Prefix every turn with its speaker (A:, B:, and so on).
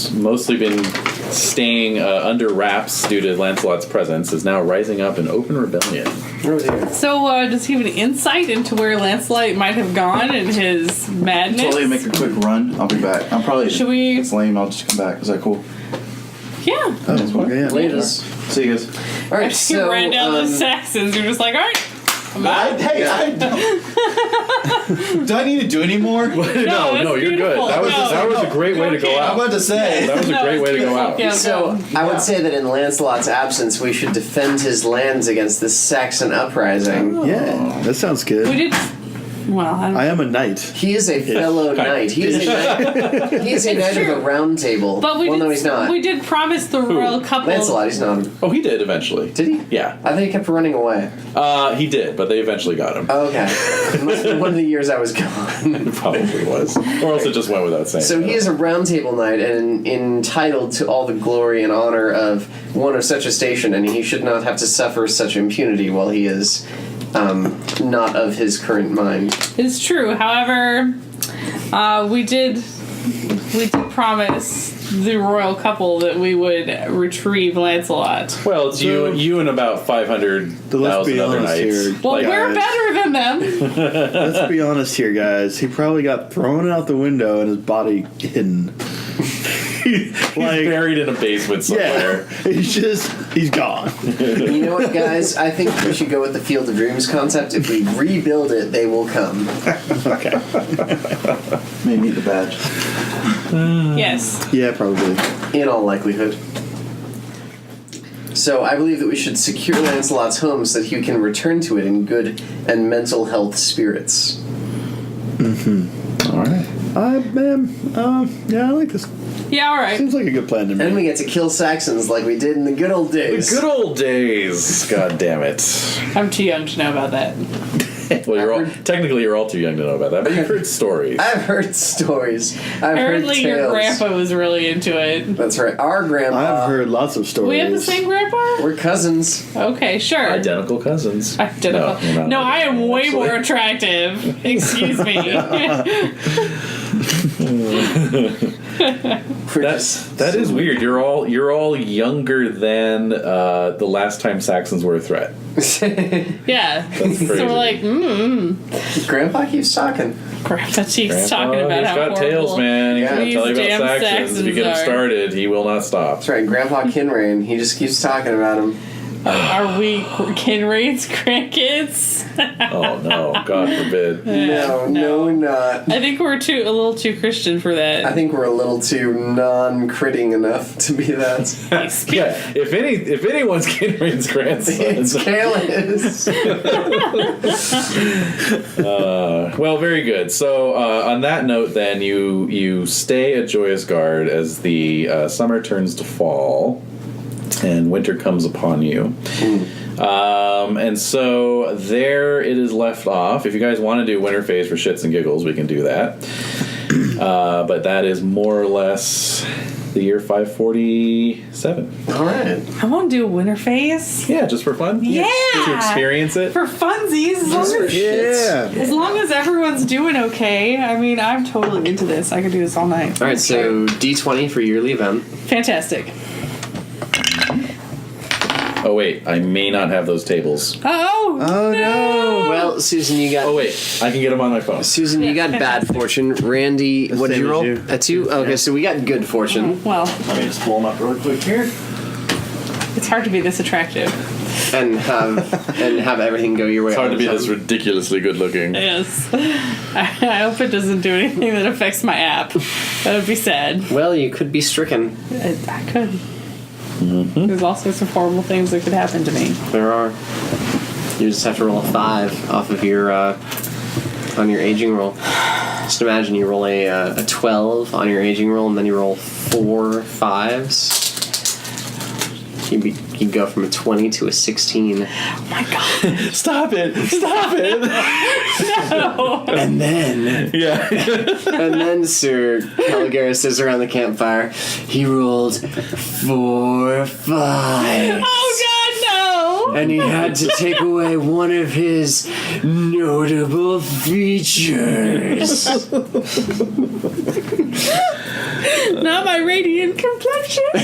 A: mostly been staying uh, under wraps due to Lancelot's presence, is now rising up in open rebellion.
B: Where was he?
C: So, uh, does he have an insight into where Lancelot might have gone in his madness?
D: Totally make a quick run. I'll be back. I'm probably.
C: Should we-
D: It's lame. I'll just come back. Is that cool?
C: yeah.
B: Oh, yeah.
E: Latest.
D: See you guys.
E: All right,
C: He
E: so
C: ran down
E: um,
C: the Saxons. You're just like, all right.
D: I, hey, I don't. do I need to do any more?
A: no, no,
C: that's
A: you're
C: beautiful.
A: good. That was
C: No.
A: that was a great way to go
C: Okay.
D: I'm
A: out.
D: about to say.
A: That was a
C: No,
A: great
C: it's
A: way to go out.
C: Yeah,
E: So I would say that in Lancelot's absence, we should defend his lands against this Saxon uprising.
B: Yeah, that sounds
C: we
B: good.
C: did. Well, I don't
B: I am a knight.
E: He is a fellow knight. He is a knight. He is a knight of the
C: true.
E: Round Table.
C: But we
E: well,
C: did.
E: no, he's not.
C: We did promise the royal couple.
E: Lancelot, he's not.
A: Oh, he did eventually.
E: Did he?
A: Yeah,
E: I think he kept running away.
A: uh, he did, but they eventually got him.
E: Oh, okay. It must have been one of the years I was gone.
A: It probably was, or else it just went without saying.
E: So he is a Round Table knight and entitled to all the glory and honor of one of such a station, and he should not have to suffer such impunity while he is um, not of his current mind.
C: It's true. However, uh, we did we did promise the royal couple that we would retrieve Lancelot.
A: Well, it's you,
B: So-
A: you, and about five hundred
B: Let's
A: thousand
B: be
A: other
B: honest
A: knights.
B: here.
C: Well,
A: Like,
C: we're
B: guys.
C: better than them.
B: Let's be honest here, guys. He probably got thrown out the window and his body hidden.
A: he's
B: like,
A: buried in a basement
B: yeah,
A: somewhere.
B: he's just he's gone.
E: You know what, guys? I think we should go with the Field of Dreams concept. If we rebuild it, they will come.
D: Maybe the badge.
C: yes.
B: Yeah, probably.
E: in all likelihood. So I believe that we should secure Lancelot's home so that he can return to it in good and mental health spirits.
A: All right.
B: I man, um, yeah, I like this.
C: Yeah. All right.
B: Seems like a good plan to
E: And
B: me.
E: we get to kill Saxons like we did in the good old days.
A: Good old days. God damn it.
C: I'm too young to know about that.
A: Well, you're all,
E: I've heard-
A: technically you're all too young to know about that, but you've heard stories.
E: I've heard stories. I've
C: Apparently,
E: heard tales.
C: your grandpa was really into it.
E: That's right. Our grandpa.
B: I've heard lots of stories.
C: We have the same grandpa.
E: We're cousins.
C: Okay. Sure.
A: Identical cousins.
C: Identical.
A: you're
C: No,
A: not
C: I am
A: identical,
C: way
A: actually.
C: more attractive. Excuse me.
E: We're
A: That's
E: just-
A: that is weird. You're all you're all younger than uh, the last time Saxons were a threat.
C: yeah.
A: That's
C: So
A: crazy.
C: we're like, mm,
E: grandpa keeps talking.
C: grandpa cheeks
A: Grandpa,
C: talking about
A: Oh, he's
C: how
A: got
C: horrible.
A: tails, man. He's
E: Yeah.
A: gonna tell you
C: These
A: about
C: damn
A: Saxons. If you
C: Saxons
A: get him
C: are-
A: started, he will not stop.
E: That's right. Grandpa Kinrain. He just keeps talking about him.
C: Are we Kinraid's grandkids?
A: Oh no, God forbid.
E: no, no,
C: no.
E: we're not.
C: I think we're too a little too Christian for
E: I
C: that.
E: think we're a little too non-critting enough to be that.
A: Yeah, if any if anyone's Kinrain's
E: It's
A: grandson.
E: careless.
A: Well, very good. So uh, on that note, then you you stay at Joyous Guard as the uh, summer turns to fall and winter comes upon you. Um, and so there it is left off. If you guys want to do winter phase for shits and giggles, we can do that. Uh, but that is more or less the year 547.
E: All right.
C: I want to do a winter phase
A: Yeah, just for fun.
C: Yeah.
A: To experience it.
C: for funsies. As long as,
B: Yeah.
C: as long as everyone's doing okay. I mean, I'm totally into this. I could do this all night.
E: All right. So D20 for yearly event.
C: Fantastic.
A: Oh, wait. I may not have those tables.
C: Oh,
B: Oh, no.
E: Well, Susan, you got.
A: Oh, wait. I can get them on my phone.
E: Susan, you got bad fortune. Randy, what did
B: same
E: you
B: as
E: roll?
B: you.
E: A two. Okay, so we got good fortune,
C: Oh, Well,
D: Let me just blow them up really quick here.
C: it's hard to be this attractive.
E: and have and have everything go your way.
A: It's hard to be
E: all the
A: this
E: time.
A: ridiculously good looking.
C: Yes. I hope it doesn't do anything that affects my app. That would be sad.
E: Well, you could be stricken.
C: I, I could. There's all sorts of horrible things that could happen to me.
E: There are. You just have to roll a five off of your uh, on your aging roll. Just imagine you roll a, uh, a twelve on your aging roll, and then you roll four fives. You be, you go from a twenty to a sixteen.
C: Oh my god.
A: Stop it! Stop it!
C: No. Oh,
E: And then,
A: yeah.
E: and then Sir Caligari says around the campfire, he rolled four fives.
C: Oh god, no.
E: And he had to take away one of his notable features.
C: Not my radiant complexion.